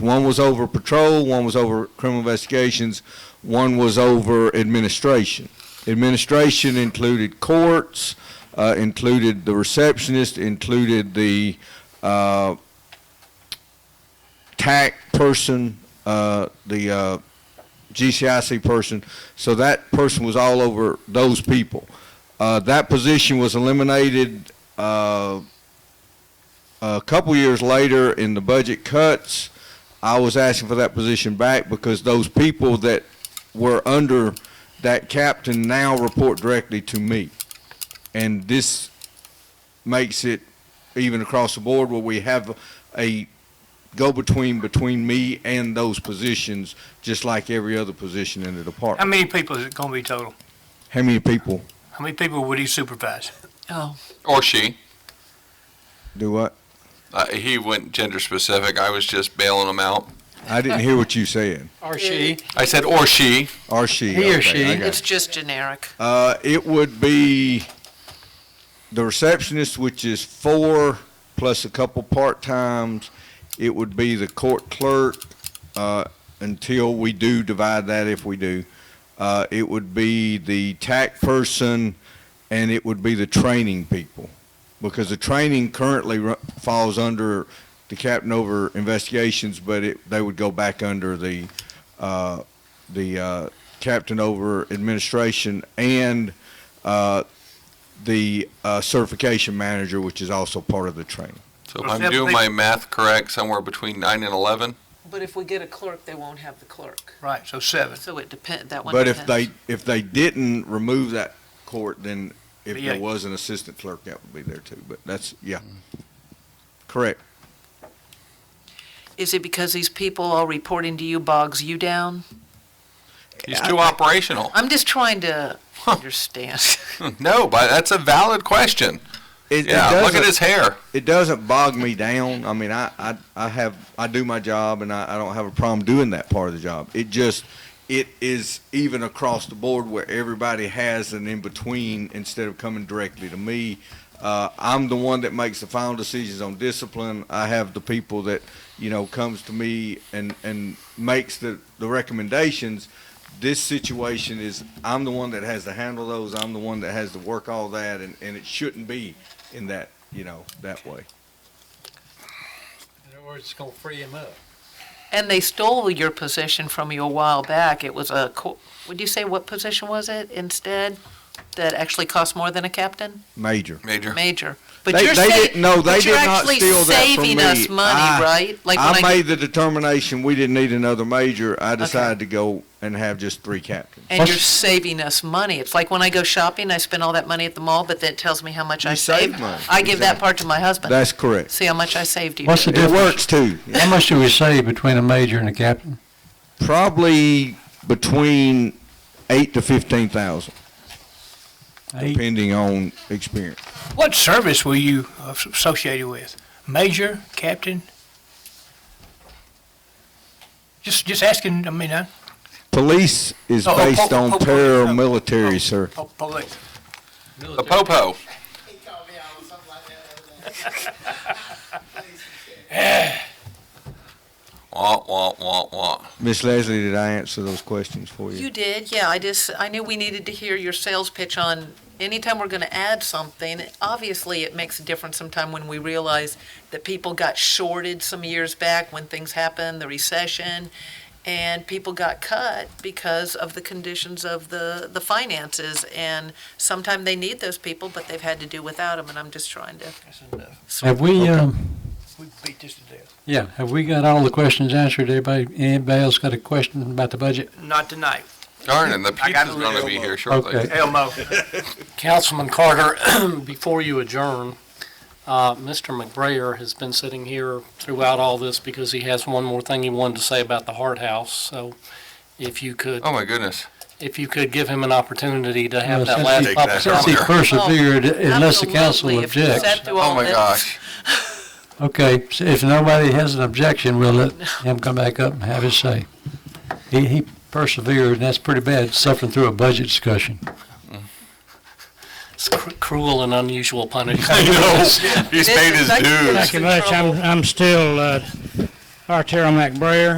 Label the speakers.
Speaker 1: One was over patrol, one was over criminal investigations, one was over administration. Administration included courts, uh, included the receptionist, included the uh, TAC person, uh, the uh, GCIC person. So that person was all over those people. Uh, that position was eliminated uh, a couple years later in the budget cuts. I was asking for that position back because those people that were under that captain now report directly to me. And this makes it even across the board where we have a go-between between me and those positions, just like every other position in the
Speaker 2: How
Speaker 1: department.
Speaker 2: many people is it gonna be total?
Speaker 1: How many people
Speaker 2: How many people would he supervise?
Speaker 3: Oh,
Speaker 4: Or she.
Speaker 1: do what?
Speaker 4: Uh, he went gender specific. I was just bailing him out.
Speaker 1: I didn't hear what you said.
Speaker 5: Or she.
Speaker 4: I said, or she.
Speaker 1: Or she.
Speaker 5: He or
Speaker 1: okay,
Speaker 5: she.
Speaker 1: I got
Speaker 3: it's just generic.
Speaker 1: Uh, it would be the receptionist, which is four plus a couple part times. It would be the court clerk uh, until we do divide that, if we do. Uh, it would be the TAC person, and it would be the training people, because the training currently ru- falls under the captain over investigations, but it, they would go back under the uh, the uh, captain over administration and uh, the uh, certification manager, which is also part of the training.
Speaker 4: So if I'm doing my math correct, somewhere between 9 and 11.
Speaker 3: But if we get a clerk, they won't have the clerk.
Speaker 2: Right, so seven.
Speaker 3: So it depend, that one
Speaker 1: But
Speaker 3: depends.
Speaker 1: if they if they didn't remove that court, then if
Speaker 2: Yeah.
Speaker 1: there was an assistant clerk, that would be there too. But that's yeah, correct.
Speaker 3: Is it because these people all reporting to you bogs you down?
Speaker 4: He's too operational.
Speaker 3: I'm just trying to understand.
Speaker 4: no, but that's a valid question.
Speaker 1: It, it
Speaker 4: Yeah, look at
Speaker 1: doesn't-
Speaker 4: his hair.
Speaker 1: it doesn't bog me down. I mean, I, I, I have, I do my job and I, I don't have a problem doing that part of the job. It just, it is even across the board where everybody has an in-between instead of coming directly to me. Uh, I'm the one that makes the final decisions on discipline. I have the people that, you know, comes to me and, and makes the, the recommendations. This situation is, I'm the one that has to handle those. I'm the one that has to work all that and, and it shouldn't be in that, you know, that way.
Speaker 5: In other words, it's gonna free him up.
Speaker 3: And they stole your position from you a while back. It was a, co- would you say what position was it instead? That actually cost more than a captain?
Speaker 1: Major.
Speaker 4: Major.
Speaker 3: Major. But
Speaker 1: They-
Speaker 3: you're
Speaker 1: they
Speaker 3: sa-
Speaker 1: didn't- no, they
Speaker 3: but you're
Speaker 1: did not
Speaker 3: actually
Speaker 1: steal that from
Speaker 3: saving
Speaker 1: me.
Speaker 3: us
Speaker 1: I-
Speaker 3: money, right? Like
Speaker 1: I
Speaker 3: when I,
Speaker 1: made the determination we didn't need another major. I decided to go and have just three captains.
Speaker 3: and you're saving us money. It's like when I go shopping, I spend all that money at the mall, but then it tells me how much
Speaker 1: You
Speaker 3: I
Speaker 1: save
Speaker 3: saved.
Speaker 1: money.
Speaker 3: I give that part to my husband.
Speaker 1: That's correct.
Speaker 3: See how much I saved you.
Speaker 5: What's the
Speaker 1: It
Speaker 5: difference?
Speaker 1: works too.
Speaker 5: How much do we save between a major and a captain?
Speaker 1: Probably between eight to fifteen thousand,
Speaker 5: Eight.
Speaker 1: depending on experience.
Speaker 2: What service were you associated with? Major, captain? Just, just asking, I mean, I,
Speaker 1: Police is
Speaker 2: Oh, oh,
Speaker 1: based
Speaker 2: oh,
Speaker 1: on
Speaker 2: oh, oh,
Speaker 1: paramilitary, sir.
Speaker 2: oh, police.
Speaker 4: The popo.
Speaker 6: He called me out on something like that the other day.
Speaker 4: Wah, wah, wah, wah.
Speaker 1: Miss Leslie, did I answer those questions for you?
Speaker 3: You did, yeah. I just, I knew we needed to hear your sales pitch on, anytime we're gonna add something, obviously it makes a difference sometime when we realize that people got shorted some years back when things happened, the recession, and people got cut because of the conditions of the, the finances. And sometime they need those people, but they've had to do without them, and I'm just trying to.
Speaker 2: That's enough.
Speaker 5: Have we, um,
Speaker 2: We beat this to death.
Speaker 5: yeah, have we got all the questions answered? Everybody, anybody else got a question about the budget?
Speaker 2: Not tonight.
Speaker 4: Darn, and the
Speaker 2: I got
Speaker 4: pizza's
Speaker 2: a
Speaker 4: going to
Speaker 2: little
Speaker 4: be here shortly.
Speaker 5: Okay.
Speaker 2: Elmo.
Speaker 7: Councilman Carter, before you adjourn, uh, Mr. McBrayer has been sitting here throughout all this because he has one more thing he wanted to say about the Hart House. So if you could,
Speaker 4: Oh, my goodness.
Speaker 7: if you could give him an opportunity to
Speaker 5: Well,
Speaker 7: have that
Speaker 5: Uh, since
Speaker 7: last
Speaker 5: he-
Speaker 4: Take that.
Speaker 5: Since
Speaker 7: opportunity.
Speaker 5: he
Speaker 4: Oh,
Speaker 5: persevered, unless the
Speaker 3: Absolutely,
Speaker 5: council
Speaker 3: if you
Speaker 5: objects.
Speaker 3: sat through
Speaker 4: Oh,
Speaker 3: all
Speaker 4: my
Speaker 3: this.
Speaker 4: gosh.
Speaker 5: Okay, so if nobody has an objection, we'll let him come back up and have his say. He, he persevered, and that's pretty bad, suffering through a budget discussion.
Speaker 7: It's cr- cruel and unusual punishment.
Speaker 4: He's
Speaker 3: This
Speaker 4: paid
Speaker 3: is
Speaker 4: his
Speaker 3: like-
Speaker 4: dues.
Speaker 8: Thank you much. I'm, I'm still, uh, Our Terrell McBrayer.